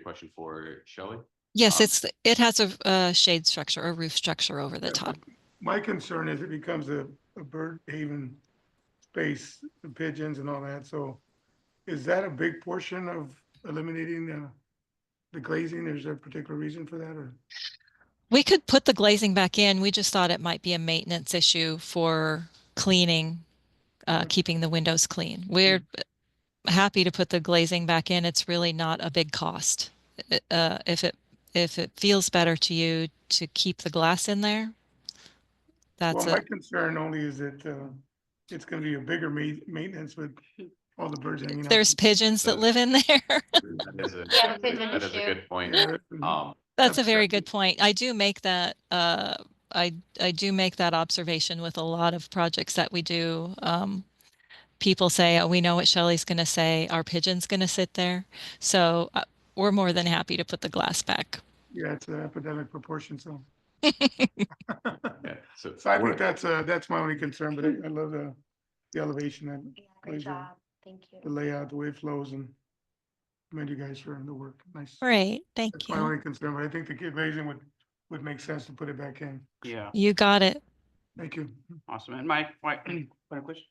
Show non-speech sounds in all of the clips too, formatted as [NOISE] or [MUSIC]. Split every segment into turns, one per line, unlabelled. question for
[LAUGHS]
Shelley.
Yes,
Um,
it's, it has a, a shade structure or roof structure over the
Yeah.
top.
My concern is it becomes a, a bird haven space, the pigeons and all that, so is that a big portion of eliminating the, the glazing? Is there a particular reason for that, or?
We could put the glazing back in. We just thought it might be a maintenance issue for cleaning, uh,
Mm.
keeping the windows clean. We're happy to put the glazing back in. It's really not a big cost. I- Uh, if it, if it feels better to you to keep the glass in there, that's
Well, my
it.
concern only is that, uh, it's gonna be a bigger ma- maintenance with all the birds hanging out.
There's pigeons that
the-
live in [LAUGHS] there.
That is a-
Yeah, the pigeon
that is a
issue.
good point.
[LAUGHS] Yeah, that's-
Um,
That's a very
Absolutely.
good point. I do make that, uh, I, I do make that observation with a lot of projects that we do. Um, people say, oh, we know what Shelley's going to say. Our pigeon's going to sit there. So uh, we're more than happy to put the glass back.
Yeah, it's an epidemic proportion,
[LAUGHS]
so.
yeah, so
So I think that's, uh, that's my only concern, but I I love the, the elevation and
Yeah,
Pleasure.
great job. Thank
the
you.
layout, the way it flows and commend you guys for the work. Nice.
Great. Thank
That's my
you.
only concern, but I think the glazing would, would make sense to put it back in.
Yeah,
You got it.
Thank you.
awesome. And my, my, [CLEARS THROAT] other questions?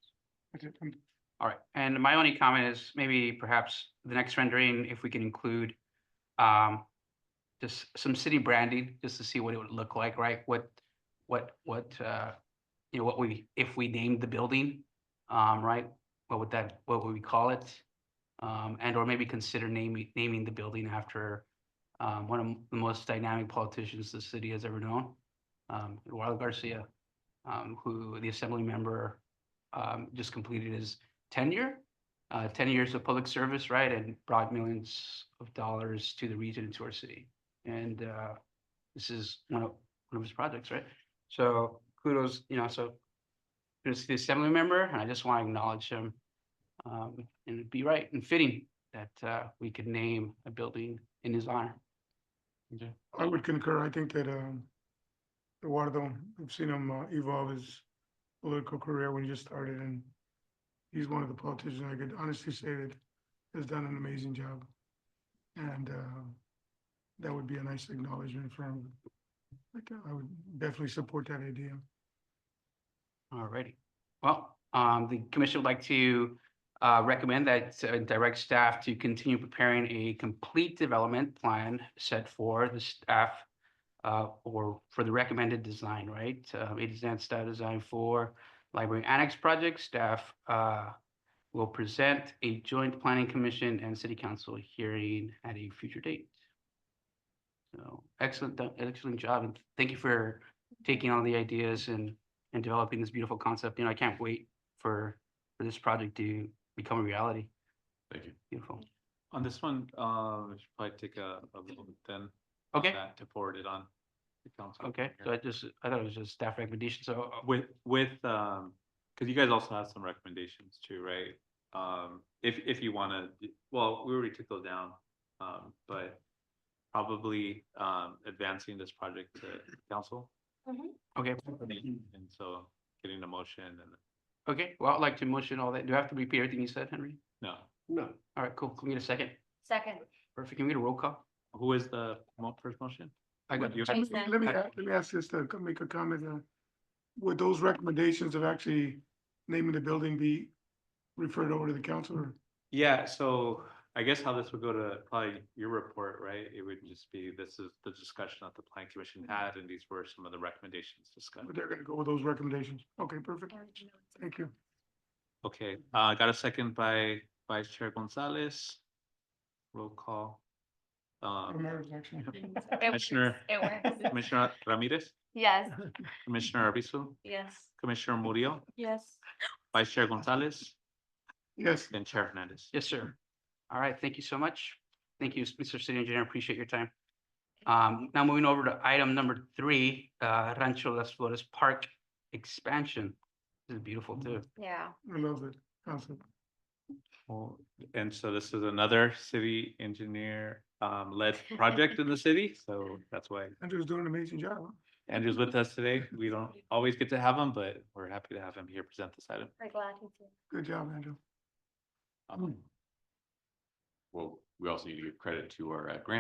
That's it. Um,
All right, and my only comment is maybe perhaps the next rendering, if we can include um, just some city branding, just to see what it would look like, right? What, what, what, uh, you know, what we, if we named the building, um, right? What would that, what would we call it? Um, and or maybe consider naming, naming the building after um, one of the most dynamic politicians the city has ever known, um, Eduardo Garcia, um, who the assembly member um, just completed his tenure, uh, 10 years of public service, right? And brought millions of dollars to the region and to our city. And uh, this is one of, one of his projects, right? So kudos, you know, so kudos to the assembly member, and I just want to acknowledge him. Um, and it'd be right and fitting that uh, we could name a building in his honor.
I would concur. I think that, um, Eduardo, I've seen him uh, evolve his political career when he just started and he's one of the politicians I could honestly say that has done an amazing job. And, uh, that would be a nice acknowledgement for him. Like, I would definitely support that idea.
Alrighty, well, um, the commission would like to, uh, recommend that uh, direct staff to continue preparing a complete development plan set for the staff. Uh, or for the recommended design, right? Uh, it is that staff design for library annex project, staff, uh. Will present a joint planning commission and city council hearing at a future date. So excellent, do- excellent job, and thank you for taking all the ideas and and developing this beautiful concept. You know, I can't wait for for this project to become a reality.
thank you.
Beautiful.
On this one, uh, we should probably take a, a little bit then. on
Okay,
that To forward it on. to council.
okay. So I just, I thought it was just staff recommendation. So uh,
With, with, um, cause you guys also have some recommendations too, right? Um, if, if you wanna, well, we already took those down, um, but probably, um, advancing this project to council.
okay,
And so getting the motion and,
okay. Well, I'd like to motion all that. Do I have to repeat everything you said, Henry?
no,
No. All right, cool. Can we get a second?
Second,
Perfect. Can we get a roll call?
who is the mo- first motion?
I got
Would you-
Jason.
Let me, a- let me ask this, to co- make a comment, uh, would those recommendations of actually naming the building be referred over to the council or?
Yeah, so I guess how this would go to probably your report, right? It would just be, this is the discussion that the planning commission had, and these were some of the recommendations discussed.
But they're gonna go with those recommendations. Okay, perfect. Thank you.
Okay, uh, got a second by Vice Chair Gonzalez. Roll call. Um,
Romero's actually-
It works.
Commissioner-
It works.
Commissioner Ramirez,
[LAUGHS]
Yes,
Commissioner Arvizo,
yes.
Commissioner Murillo,
Yes.
Vice Chair Gonzalez,
Yes,
and Chair Hernandez.
Yes, sir. All right, thank you so much. Thank you, Mr. City Engineer. Appreciate your time. Um, now moving over to item number three, uh, Rancho Las Flores Park expansion. This is beautiful too.
Yeah.
I love it. Council.
Well, and so this is another city engineer, um, led project in the city, so that's why
Andrew's doing an amazing job. huh?
Andrew's with us today. We don't always get to have him, but we're happy to have him here present this item.
We're glad you did.
Good job, Andrew.
Um,
Well, we also need to give credit to our uh, grant